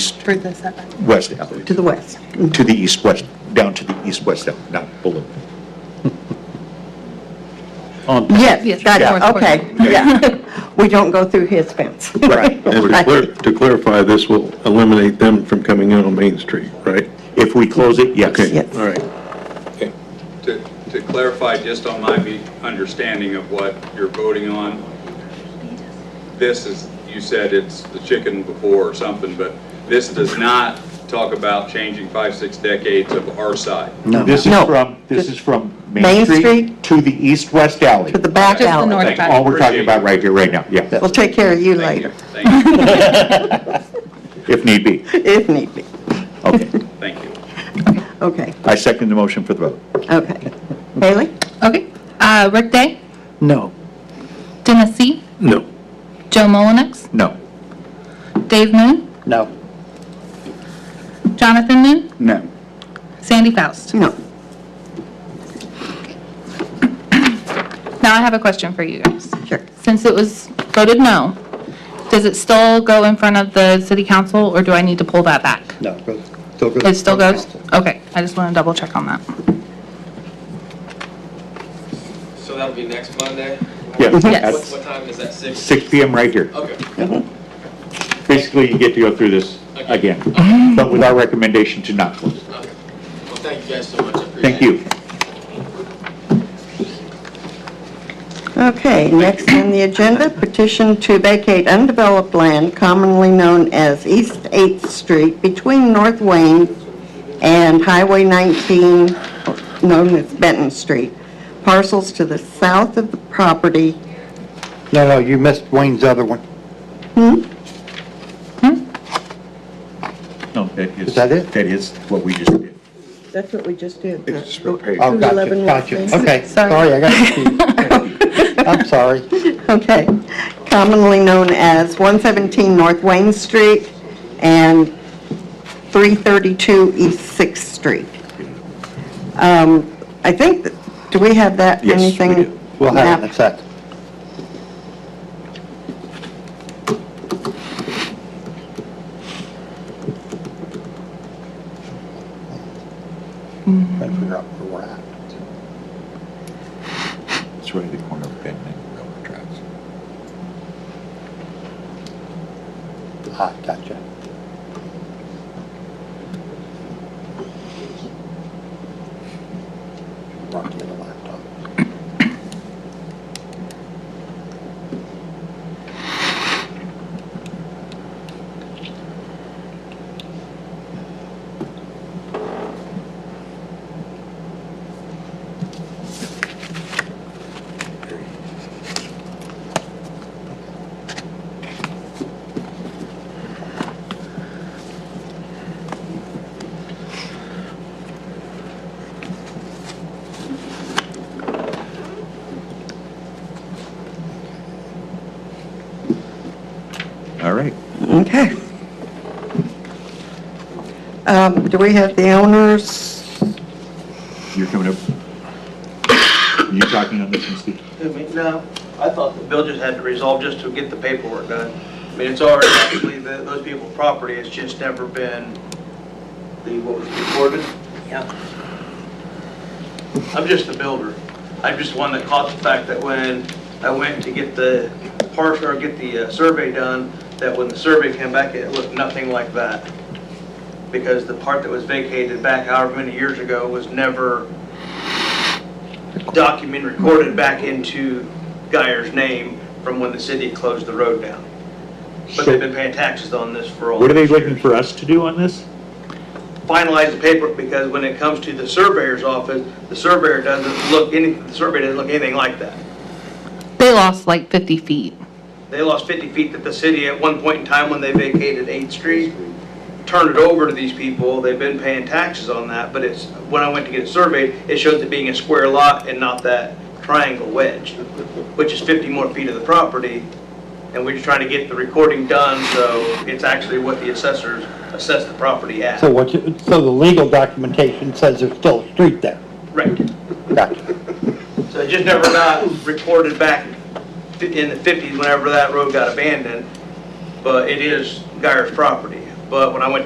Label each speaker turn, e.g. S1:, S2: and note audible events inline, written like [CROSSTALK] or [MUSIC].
S1: For the setback.
S2: west alley,
S3: to the west.
S2: to the east-west, down to the east-west, alley, not below.
S4: On-
S3: Yes, got
S2: Yeah.
S3: it, okay, [LAUGHS] yeah. We don't go through his fence.
S2: [LAUGHS] Right.
S5: And to clar- to clarify, this will eliminate them from coming in on Main Street, right?
S2: If we close it, yes.
S5: Okay,
S3: Yes.
S5: All right.
S6: To to clarify, just on my be- understanding of what you're voting on, this is, you said it's the chicken before or something, but this does not talk about changing five, six decades of our side.
S2: This is
S3: No.
S2: from, this is from
S3: Main
S2: Main
S3: Street?
S2: Street to the east-west alley.
S3: To the back
S6: Just
S1: the north.
S3: alley.
S6: Thank you.
S2: All Oh, we're talking about right here, right now, yeah,
S3: We'll take care of you
S6: Thank you.
S3: later, [LAUGHS]
S6: Thank you,
S2: if need be.
S3: if need be.
S2: Okay.
S6: thank you.
S3: Okay,
S2: I second the motion for the vote.
S3: okay. Haley?
S1: Okay. Uh, Rick Day,
S4: No.
S1: Dennis C.,
S5: No.
S1: Joe Mullenix,
S2: No.
S1: Dave Moon,
S4: No.
S1: Jonathan Moon,
S2: No.
S1: Sandy Faust.
S3: No.
S1: Now I have a question for you guys.
S3: Sure.
S1: Since it was voted no, does it still go in front of the city council, or do I need to pull that back?
S4: No. Still good.
S1: It still goes? Okay, I just want to double check on that.
S7: So that'll be next Monday?
S2: Yes.
S1: Yes.
S7: What, what time is that, six?
S2: Six PM right here. Mm-hmm.
S7: Okay.
S2: Basically, you get to go through this again, but with our recommendation to not close.
S7: okay. Well, thank you guys so much, I appreciate it.
S2: Thank you.
S3: Okay, next on the agenda, petition to vacate undeveloped land commonly known as East 8th Street between North Wayne and Highway 19, known as Benton Street, parcels to the south of the property.
S4: No, no, you missed Wayne's other one.
S2: No, that is.
S4: Is that it?
S2: That is what we just did.
S3: That's what we just did.
S5: It's just real page.
S4: Oh, gotcha,
S3: 211
S4: gotcha.
S3: West Main.
S4: Okay,
S1: Sorry.
S4: sorry, I got confused. I'm sorry.
S3: Okay, commonly known as 117 North Wayne Street and 332 East Sixth Street. Um, I think, that- do we have that,
S2: Yes, we
S3: anything?
S2: do.
S4: We'll have it in
S3: map?
S4: a second. Trying to figure out where we're at.
S2: It's right at the corner of Benton and Railroad Tracks.
S4: Ah, gotcha. Rocky on the laptop.
S2: All right.
S3: Okay. Um, Do we have the owners?
S2: You're coming up. You talking on this one, Steve?
S8: I mean, No, I thought the bill just had to resolve just to get the paperwork done. I mean, it's already actually the- those people's property, it's just never been the, what was recorded? Yeah. I'm just the builder. I'm just one that caught the fact that when I went to get the parcel, or get the uh, survey done, that when the survey came back, it looked nothing like that. Because the part that was vacated back however many years ago was never document recorded back into Geyer's name from when the city closed the road down. But they've been paying taxes on this for all
S2: What are they
S8: these
S2: looking
S8: years.
S2: for us to do on this?
S8: Finalize the paperwork because when it comes to the surveyor's office, the surveyor doesn't look any, the survey doesn't look anything like that.
S1: They lost like 50 feet.
S8: They lost 50 feet that the city at one point in time when they vacated 8th Street, turned it over to these people. They've been paying taxes on that, but it's, when I went to get it surveyed, it shows it being a square lot and not that triangle wedge, which is 50 more feet of the property. And we're just trying to get the recording done, so it's actually what the assessors assess the property at.
S4: So what, you- so the legal documentation says there's still a street there.
S8: Right.
S4: Gotcha.
S8: So it just never got reported back fi- in the 50s whenever that road got abandoned, but it is Geyer's property. But when I went